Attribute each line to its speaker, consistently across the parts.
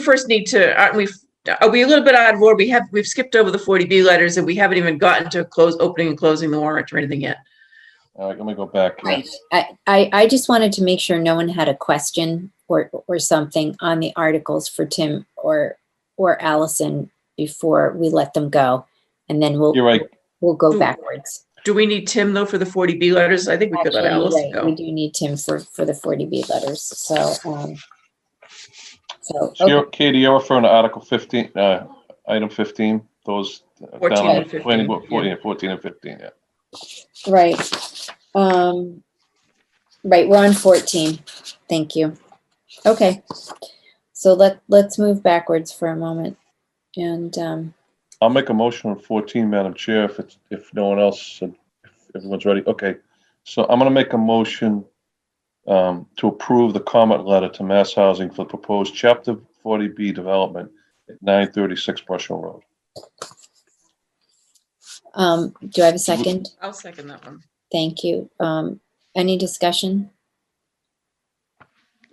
Speaker 1: first need to, aren't we, are we a little bit out of order? We have, we've skipped over the 40B letters and we haven't even gotten to close, opening and closing the warrant or anything yet.
Speaker 2: All right, let me go back. here.
Speaker 3: Right. I, I, I just wanted to make sure no one had a question or, or something on the articles for Tim or, or Allison before we let them go. And then we'll,
Speaker 2: You're right.
Speaker 3: we'll
Speaker 1: Hmm.
Speaker 3: go backwards.
Speaker 1: Do we need Tim though for the 40B letters? I think we could let
Speaker 3: Actually,
Speaker 1: Alice
Speaker 3: you're right, We
Speaker 1: go.
Speaker 3: do need Tim for, for the 40B letters. So, um, so,
Speaker 2: So
Speaker 3: okay,
Speaker 2: you're, Katie, you're referring to Article 15, uh, item 15, those. uh, down
Speaker 1: 14
Speaker 2: on
Speaker 1: and
Speaker 2: the
Speaker 1: 15,
Speaker 2: planning board, 14, 14 and 15, yeah.
Speaker 3: right. Um, right, we're on 14. Thank you. Okay. So let, let's move backwards for a moment. And, um,
Speaker 2: I'll make a motion on 14, Madam Chair, if it's, if no one else, uh, if everyone's ready. Okay. So I'm going to make a motion um, to approve the comment letter to Mass Housing for proposed Chapter 40B development at 936 Brush Hill Road.
Speaker 3: Um, do I have a second?
Speaker 1: I'll second that one.
Speaker 3: Thank you. Um, any discussion?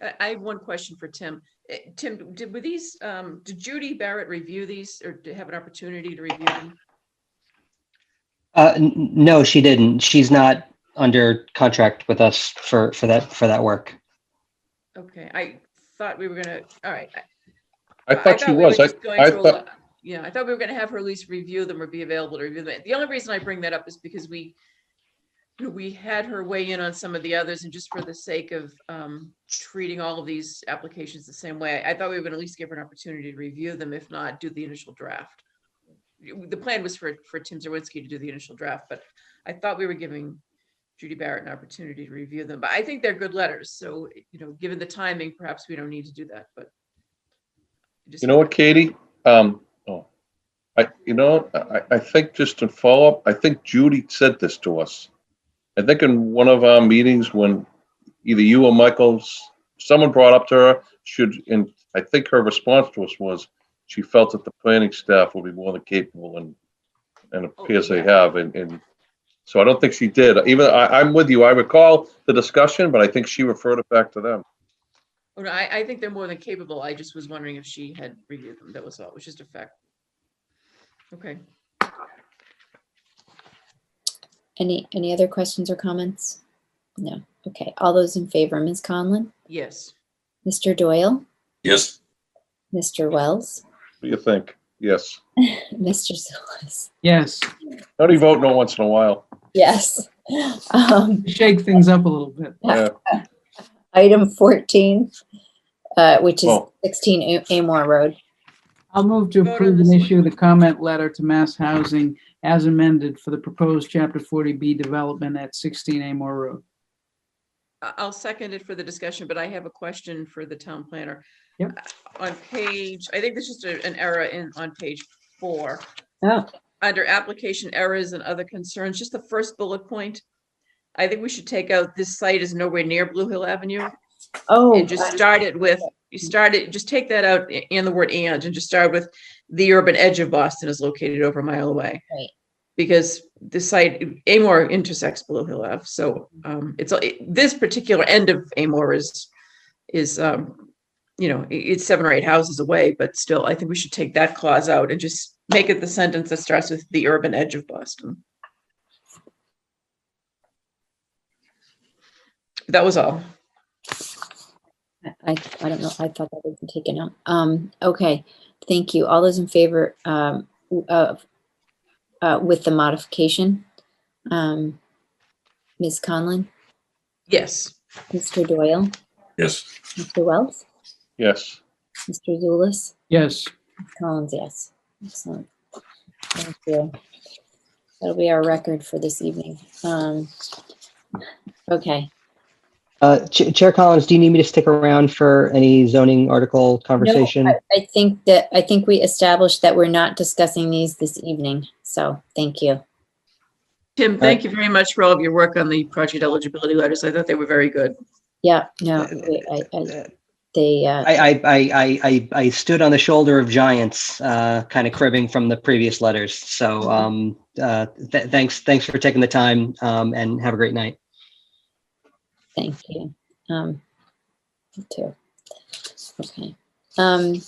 Speaker 1: I, I have one question for Tim. Eh, Tim, did, were these, um, did Judy Barrett review these or did have an opportunity to review them?
Speaker 4: Uh, n- n- no, she didn't. She's not under contract with us for, for that, for that work.
Speaker 1: Okay, I thought we were gonna, all right.
Speaker 2: I thought she
Speaker 1: we were
Speaker 2: was. I,
Speaker 1: just going
Speaker 2: I
Speaker 1: through a
Speaker 2: thought,
Speaker 1: lot- Yeah, I thought we were gonna have her at least review them or be available to review them. The only reason I bring that up is because we, we had her weigh in on some of the others and just for the sake of um, treating all of these applications the same way, I thought we would at least give her an opportunity to review them, if not, do the initial draft. The plan was for, for Tim Zerwinski to do the initial draft, but I thought we were giving Judy Barrett an opportunity to review them, but I think they're good letters. So, you know, given the timing, perhaps we don't need to do that, but. just-
Speaker 2: You know what, Katie? Um, oh, I, you know, I, I think just in follow up, I think Judy said this to us. I think in one of our meetings when either you or Michael's, someone brought up to her, should, and I think her response to us was she felt that the planning staff would be more than capable and, and it appears they have, and, and so I don't think she did. Even, I, I'm with you. I recall the discussion, but I think she referred it back to them.
Speaker 1: Oh, no, I, I think they're more than capable. I just was wondering if she had reviewed them. That was all. It was just a fact. Okay,
Speaker 3: Any, any other questions or comments? No. Okay. All those in favor, Ms. Conlon,
Speaker 1: yes.
Speaker 3: Mr. Doyle,
Speaker 5: Yes,
Speaker 3: Mr. Wells,
Speaker 2: What do you think? Yes.
Speaker 3: Mr. Silas.
Speaker 6: Yes,
Speaker 2: How do you vote no once in a while?
Speaker 3: Yes. Um,
Speaker 6: shake things up a little bit.
Speaker 2: Yeah.
Speaker 3: item 14, uh, which is
Speaker 2: Well-
Speaker 3: 16 A- Amore Road.
Speaker 6: I'll move to
Speaker 1: Vote on
Speaker 6: approve
Speaker 1: this
Speaker 6: and
Speaker 1: one.
Speaker 6: issue the comment letter to Mass Housing as amended for the proposed Chapter 40B development at 16 Amore Road.
Speaker 1: I- I'll second it for the discussion, but I have a question for the town planner.
Speaker 6: Yep.
Speaker 1: Uh, On page, I think there's just a- an error in, on page four.
Speaker 6: Oh.
Speaker 1: Under application errors and other concerns, just the first bullet point. I think we should take out this site is nowhere near Blue Hill Avenue
Speaker 3: Oh,
Speaker 1: and just start it with, you started, just take that out a- and the word and, and just start with the urban edge of Boston is located over a mile away.
Speaker 3: Right.
Speaker 1: Because the site, Amor intersects Blue Hill Ave, so,
Speaker 3: Mm-hmm.
Speaker 1: um, it's, a- it- this particular end of Amor is, is, um, you know, i- it's seven or eight houses away, but still, I think we should take that clause out and just make it the sentence that starts with the urban edge of Boston. That was all.
Speaker 3: I, I don't know. I thought that had been taken out. Um, okay. Thank you. All those in favor, um, w- of, uh, with the modification? Um, Ms. Conlon,
Speaker 1: Yes.
Speaker 3: Mr. Doyle,
Speaker 5: yes.
Speaker 3: Mr. Wells,
Speaker 2: Yes.
Speaker 3: Mr. Zulus,
Speaker 6: Yes,
Speaker 3: Ms. Collins, yes. Excellent. Thank you. That'll be our record for this evening. Um, okay.
Speaker 4: Uh, Ch- Chair Collins, do you need me to stick around for any zoning article conversation?
Speaker 3: I I think that, I think we established that we're not discussing these this evening. So thank you.
Speaker 1: Tim, thank you very much for all of your work on the project eligibility letters. I thought they were very good.
Speaker 3: Yeah, no,
Speaker 4: Uh,
Speaker 3: we- I, I,
Speaker 4: uh,
Speaker 3: they, uh,
Speaker 4: I, I, I, I, I stood on the shoulder of giants, uh, kind of cribbing from the previous letters. So, um, uh, th- thanks, thanks for taking the time, um, and have a great night.
Speaker 3: Thank you. Um, me too. Okay. Um,